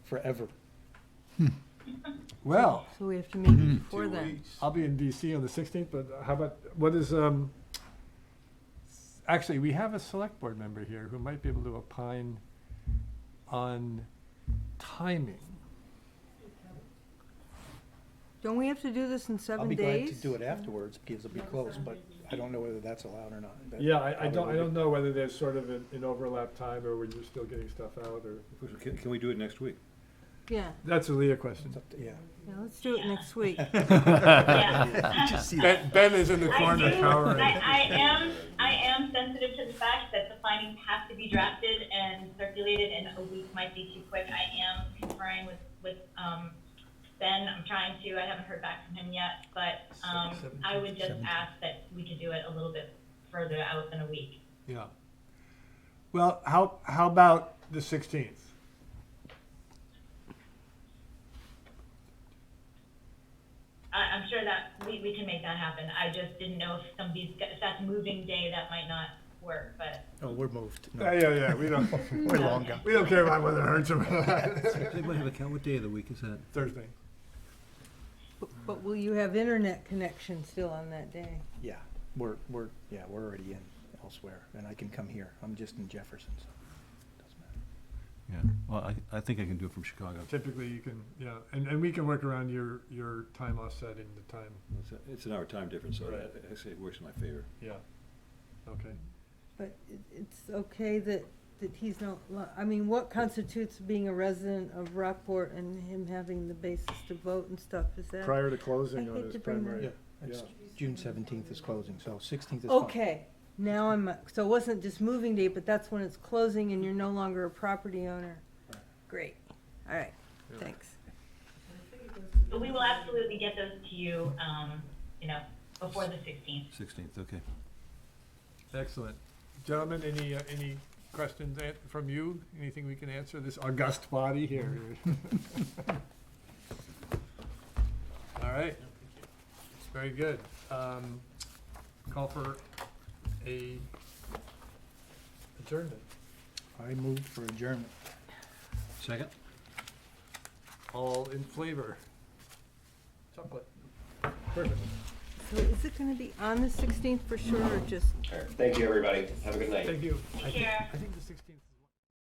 forever. Well, So we have to Mhm. meet before then. I'll be in DC on the 16th, but how about, what is, um, s- actually, we have a select board member here who might be able to opine on timing. Don't we have to do this in I'll seven be glad to days? do it afterwards because it'll be closed, but I don't know whether that's allowed or not. That Yeah, I, I don't, I probably don't know whether there's sort of an, an overlap time or when you're still getting stuff out or, Can, can we do it next week? Yeah, that's a Leah question. it's up to- Yeah. yeah, let's do it next week. Ben, Ben is in the corner I do. cowering. I, I am. I am sensitive to the fact that the findings have to be drafted and circulated, and a week might be too quick. I am conferring with with um, Ben. I'm trying to. I haven't heard back from him yet, but um, I would just ask that we could do it a little bit further out than a week. Yeah. Well, how, how about the 16th? I, I'm sure that we, we can make that happen. I just didn't know if somebody's got, if that's moving day that might not work, but Oh, we're moved. No, Yeah, yeah, yeah, we don't, We're longer. we don't care about whether it hurts or not. Anybody have a count? What day of the week is that? Thursday. But- But will you have internet connection still on that day? Yeah, we're, we're, yeah, we're already in elsewhere and I can come here. I'm just in Jefferson, so it doesn't matter. Yeah, well, I, I think I can do it from Chicago. Typically, you can, yeah, and, and we can work around your, your time offset in the time, It's a- It's an hour time difference, so Right. I- I say it works in my favor. yeah. Okay. But it, it's okay that, that he's not, li- I mean, what constitutes being a resident of Rockport and him having the basis to vote and stuff, is that? Prior to I closing on hate his to bring that primary. up. It's, June seventeenth is closing, so sixteenth is fine. Okay, now I'm, so it wasn't just moving day, but that's when it's closing and you're no longer a property owner. Great, all right, Yeah. thanks. but we will absolutely get those to you. Um, you know, before the 16th. Sixteenth, okay. Excellent. Gentlemen, any, uh, any questions an- from you? Anything we can answer this august body here? Mm-hmm. All right. Very good. Um, Call for a adjournment. I moved for adjournment. Second? All in flavor. Chocolate. Perfect. So is it gonna be on the sixteenth for sure, or just All right. Thank you, everybody. Have a good night. Thank you. I Take think- care. I think the sixteenth.